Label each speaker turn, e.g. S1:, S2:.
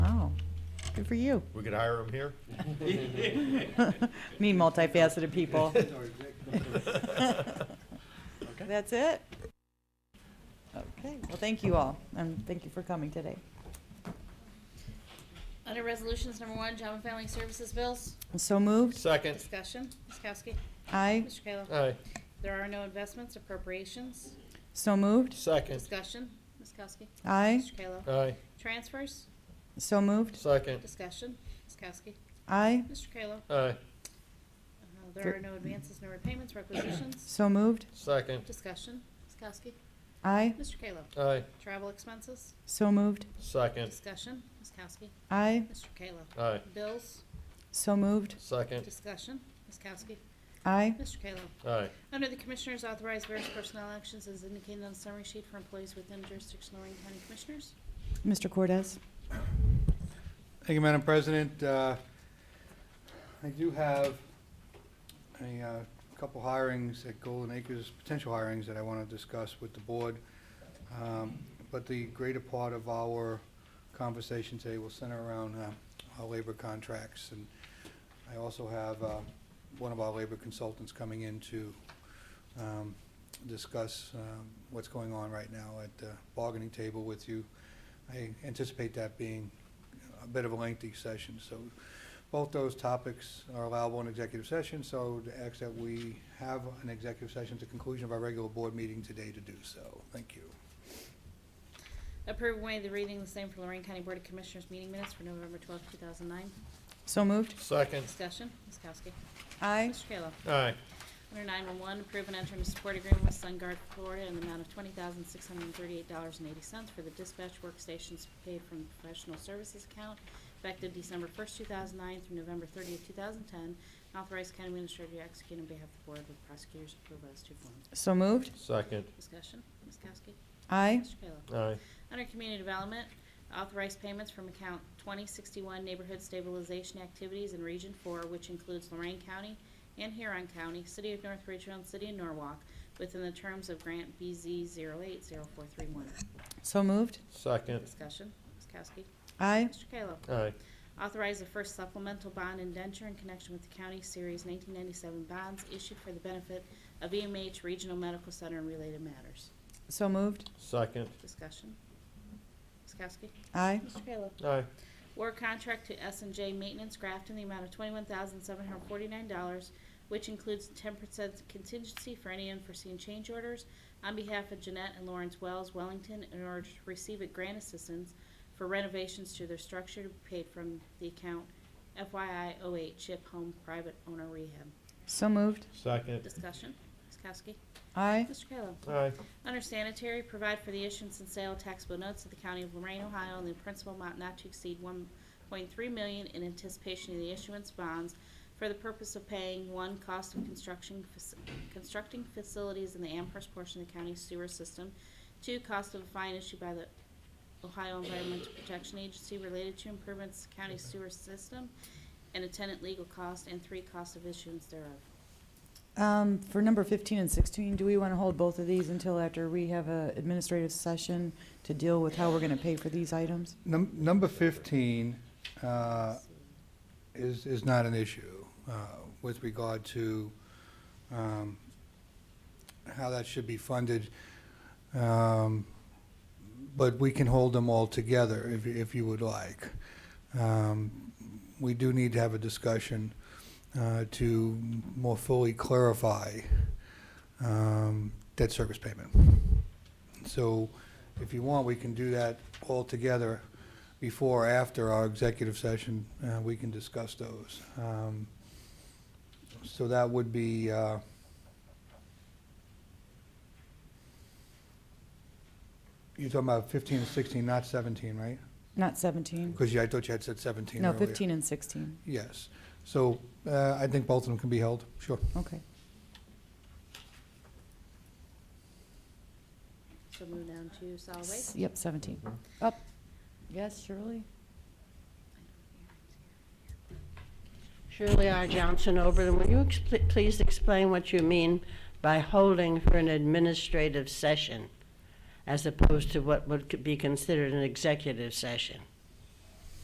S1: Oh, Good for you.
S2: We could hire him here?
S1: Need multifaceted people. That's it? Okay, well, thank you all, and thank you for coming today.
S3: Under Resolutions Number One, Job and Family Services Bills,
S1: So moved?
S2: Second.
S3: discussion, Ms. Kowski,
S1: Aye.
S3: Mr. Kayla.
S2: Aye.
S3: There are no investments, appropriations,
S1: So moved?
S2: Second.
S3: discussion, Ms. Kowski,
S1: Aye.
S3: Mr. Kayla.
S2: Aye.
S3: Transfers,
S1: So moved?
S2: Second.
S3: discussion, Ms. Kowski,
S1: Aye.
S3: Mr. Kayla.
S2: Aye.
S3: Uh, There are no advances, no repayments, requisitions,
S1: So moved?
S2: Second.
S3: discussion, Ms. Kowski,
S1: Aye.
S3: Mr. Kayla.
S2: Aye.
S3: Travel expenses,
S1: So moved?
S2: Second.
S3: discussion, Ms. Kowski,
S1: Aye.
S3: Mr. Kayla.
S2: Aye.
S3: Bills,
S1: So moved?
S2: Second.
S3: discussion, Ms. Kowski,
S1: Aye.
S3: Mr. Kayla.
S2: Aye.
S3: Under the Commissioners, authorize various personnel actions as indicated on the summary sheet for employees within jurisdiction of Lorraine County Commissioners.
S1: Mr. Cortez?
S4: Thank you, Madam President. Uh, I do have a uh, couple hirings at Golden Acres, potential hirings that I want to discuss with the board. Um, But the greater part of our conversation today will center around uh, our labor contracts. And I also have uh, one of our labor consultants coming in to um, discuss um, what's going on right now at the bargaining table with you. I anticipate that being a bit of a lengthy session, so both those topics are allowable in executive session, so to ask that we have an executive session at the conclusion of our regular board meeting today to do so. Thank you.
S3: Approve and waive the reading of the same for Lorraine County Board of Commissioners meeting minutes for November twelfth, two thousand nine.
S1: So moved?
S2: Second.
S3: Discussion, Ms. Kowski.
S1: Aye.
S3: Mr. Kayla.
S2: Aye.
S3: Under nine-one-one, approve and enter into support agreement with SunGuard Florida in the amount of twenty thousand, six hundred and thirty-eight dollars and eighty cents for the dispatch workstations paid from the professional services account effective December first, two thousand nine through November thirtieth, two thousand ten. Authorize county administrator to execute on behalf of the board with prosecutors approval as to form.
S1: So moved?
S2: Second.
S3: Discussion, Ms. Kowski.
S1: Aye.
S3: Mr. Kayla.
S2: Aye.
S3: Under Community Development, authorize payments from account 2061 Neighborhood Stabilization Activities in Region 4, which includes Lorraine County and Huron County, City of North Ridgeville, and City of Norwalk, within the terms of Grant BZ 080431.
S1: So moved?
S2: Second.
S3: Discussion, Ms. Kowski.
S1: Aye.
S3: Mr. Kayla.
S2: Aye.
S3: Authorize the first supplemental bond indenture in connection with the county series 1997 bonds issued for the benefit of EMH Regional Medical Center and related matters.
S1: So moved?
S2: Second.
S3: Discussion, Ms. Kowski.
S1: Aye.
S3: Mr. Kayla.
S2: Aye.
S3: War contract to s and J Maintenance Grafton in the amount of twenty-one thousand seven hundred forty-nine dollars, which includes ten percent contingency for any unforeseen change orders on behalf of Jeanette and Lawrence Wells, Wellington, in order to receive a grant assistance for renovations to their structure to be paid from the account FYI 08 Chip Home Private Owner Rehab.
S1: So moved?
S2: Second.
S3: Discussion, Ms. Kowski.
S1: Aye.
S3: Mr. Kayla.
S2: Aye.
S3: Under sanitary, provide for the issuance and sale of taxable notes of the County of Lorraine, Ohio, in the principal amount not to exceed one point three million in anticipation of the issuance of bonds for the purpose of paying, one, cost of construction, faci- constructing facilities in the Amherst portion of the county sewer system, two, cost of a fine issued by the Ohio Environmental Protection Agency related to improvements to the county sewer system, and attendant legal cost, and three, cost of issuance thereof.
S1: Um, For number 15 and 16, do we want to hold both of these until after we have a administrative session to deal with how we're going to pay for these items?
S4: Num- Number 15 uh, is is not an issue uh, with regard to um, how that should be funded, Um, but we can hold them all together if you- if you would like. Um, We do need to have a discussion uh, to more fully clarify um, debt service payment. So if you want, we can do that all together before or after our executive session. uh, We can discuss those. Um, So that would be, uh, you're talking about 15 and 16, not 17, right?
S1: Not 17?
S4: Because I thought you had said 17
S1: No,
S4: earlier.
S1: 15 and 16.
S4: Yes. So uh, I think both of them can be held, sure.
S1: Okay.
S3: So move down to solid waste.
S1: Yep, 17. Up. Yes, Shirley?
S5: Shirley R. Johnson, Oberlin, will you expl- please explain what you mean by holding for an administrative session as opposed to what would c- be considered an executive session?